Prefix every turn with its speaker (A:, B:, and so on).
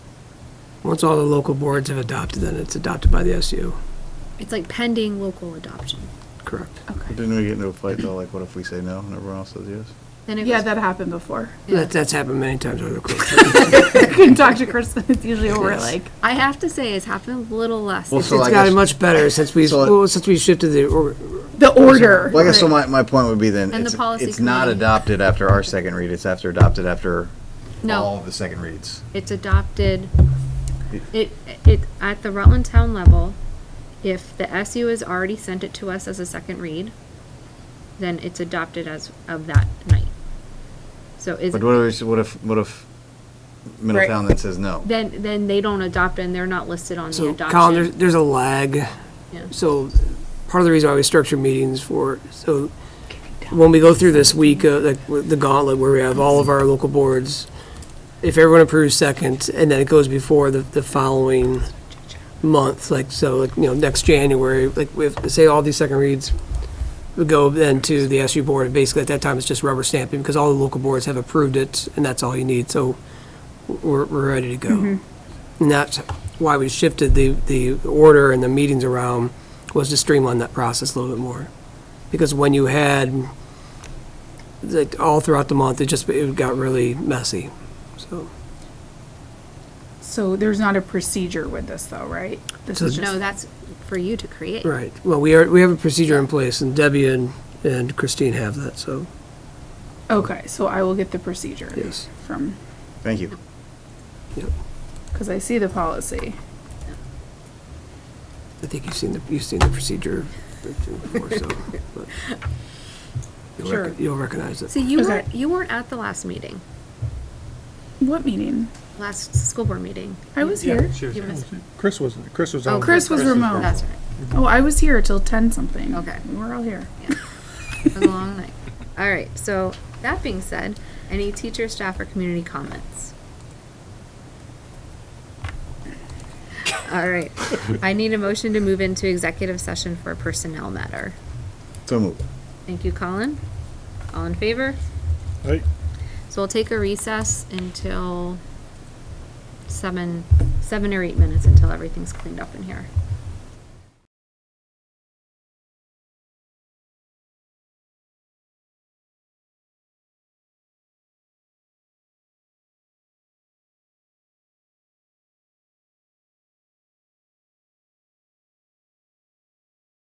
A: Once all the local boards have adopted, then it's adopted by the SU,
B: It's like pending local adoption.
A: correct?
C: But
B: Okay.
C: Didn't we get into a fight though, like what if we say no and everyone else says yes?
B: Then it
D: Yeah,
B: goes-
D: that happened before.
B: yeah.
A: That, that's happened many times over the course.
D: I can talk to Kristen. It's usually over
A: Yes.
D: like
B: I have to say, it's happened a little less.
C: Well,
B: It's-
C: So
A: It's
C: I
A: gotten
C: guess-
A: much better since we,
C: So-
A: well, since we shifted the, or-
D: the order.
C: Well, I guess so my, my point would be then,
B: And the
C: it's,
B: policy
C: it's not
B: committee.
C: adopted after our second read, it's after adopted after all
B: no,
C: of the second reads.
B: it's adopted.
C: It-
B: It it at the Rutland Town level. If the SU has already sent it to us as a second read, then it's adopted as of that night. So is
C: But what if, what if, what if Middletown then says no?
B: then then they don't adopt and they're not listed on the
A: so
B: adoption.
A: Colin, there's, there's a lag.
B: Yeah.
A: So part of the reason why we structure meetings for, so when we go through this week, uh, like with the gauntlet where we have all of our local boards, if everyone approves second and then it goes before the, the following month, like, so like, you know, next January, like we have, say all these second reads would go then to the SU board and basically at that time it's just rubber stamping because all the local boards have approved it and that's all you need. So we're, we're ready to
B: Mm-hmm.
A: go. And that's why we shifted the, the order and the meetings around was to streamline that process a little bit more. Because when you had, like, all throughout the month, it just, it got really messy, so.
D: So there's not a procedure with this though, right? This is
B: no,
D: just,
B: that's for you to create.
A: Right, well, we are, we have a procedure in place, and Debbie and, and Christine have that, so,
D: okay, so I will get the procedure.
A: Yes.
D: From,
C: Thank you.
A: yep.
D: because I see the policy.
A: I think you've seen the, you've seen the procedure before, so. but you'll rec-
D: Sure.
A: You'll recognize it.
B: So you
D: Okay.
B: weren't you weren't at the last meeting,
D: What meeting?
B: last school board meeting.
D: I was
E: Yeah,
D: here.
E: she was
B: You
E: here.
B: missed-
E: Chris wasn't, Chris was
B: Oh,
E: on.
D: Chris was remote.
B: That's right.
D: Oh, I was here till ten something.
B: Okay.
D: We were all here.
B: It was a long night. All right. So that being said, any teacher, staff, or community comments? All right. I need a motion to move into executive session for a personnel matter.
C: So move.
B: Thank you, Colin. All in favor?
E: Right.
B: So we'll take a recess until seven, seven or eight minutes until everything's cleaned up in here.